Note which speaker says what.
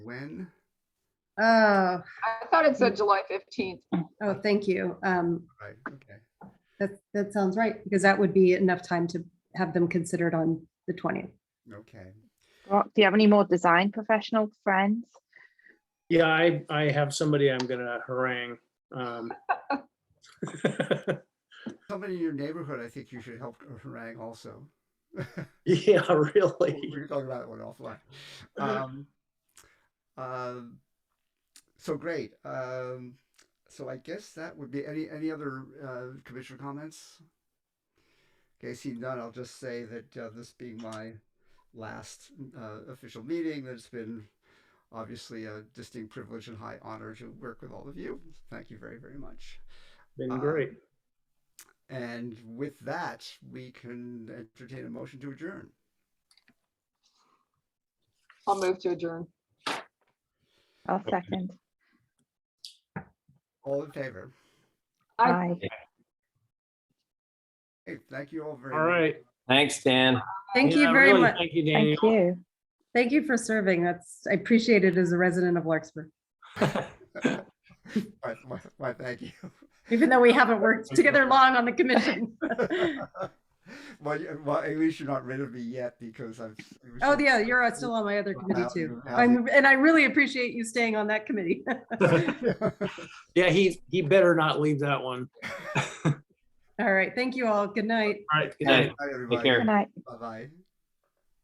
Speaker 1: when?
Speaker 2: Oh,
Speaker 3: I thought it said July 15th.
Speaker 2: oh, thank you. Um,
Speaker 1: Right, okay.
Speaker 2: that, that sounds right, because that would be enough time to have them considered on the twentieth.
Speaker 1: Okay.
Speaker 4: Well, Do you have any more design professional friends?
Speaker 5: Yeah, I, I have somebody I'm gonna harangue. um.
Speaker 1: Somebody in your neighborhood, I think you should help harangue also.
Speaker 5: Yeah,
Speaker 1: We
Speaker 5: really.
Speaker 1: were talking about that one offline. Um, um, so great. Um, so I guess that would be any any other uh, commissioner comments. Okay, seeing none, I'll just say that uh, this being my last uh, official meeting, that it's been obviously a distinct privilege and high honor to work with all of you. Thank you very very much.
Speaker 5: Been great.
Speaker 1: And with that, we can entertain a motion to adjourn.
Speaker 3: I'll move to adjourn.
Speaker 4: I'll second.
Speaker 1: All in favor?
Speaker 3: Aye.
Speaker 4: Bye.
Speaker 1: Hey, thank you all very
Speaker 5: All
Speaker 1: much.
Speaker 5: right.
Speaker 6: Thanks, Dan.
Speaker 2: Thank you
Speaker 5: Yeah,
Speaker 2: very
Speaker 5: really,
Speaker 2: much.
Speaker 5: Thank you, Daniel.
Speaker 4: Thank you.
Speaker 2: Thank you for serving. That's, I appreciate it as a resident of Larkspur,
Speaker 1: Why, why- why, thank you.
Speaker 2: even though we haven't worked together long on the commission.
Speaker 1: well, you- well, at least you're not rid of me yet because I've. it was
Speaker 2: Oh,
Speaker 1: so-
Speaker 2: yeah, you're still on my other committee too. I'm, and I really appreciate you staying on that committee.
Speaker 5: Yeah, he, he better not leave that one.
Speaker 2: All right, thank you all. Good night.
Speaker 5: All right, good
Speaker 6: All
Speaker 5: night.
Speaker 6: right.
Speaker 1: Bye, everybody.
Speaker 6: care.
Speaker 4: Good night.
Speaker 1: Bye-bye.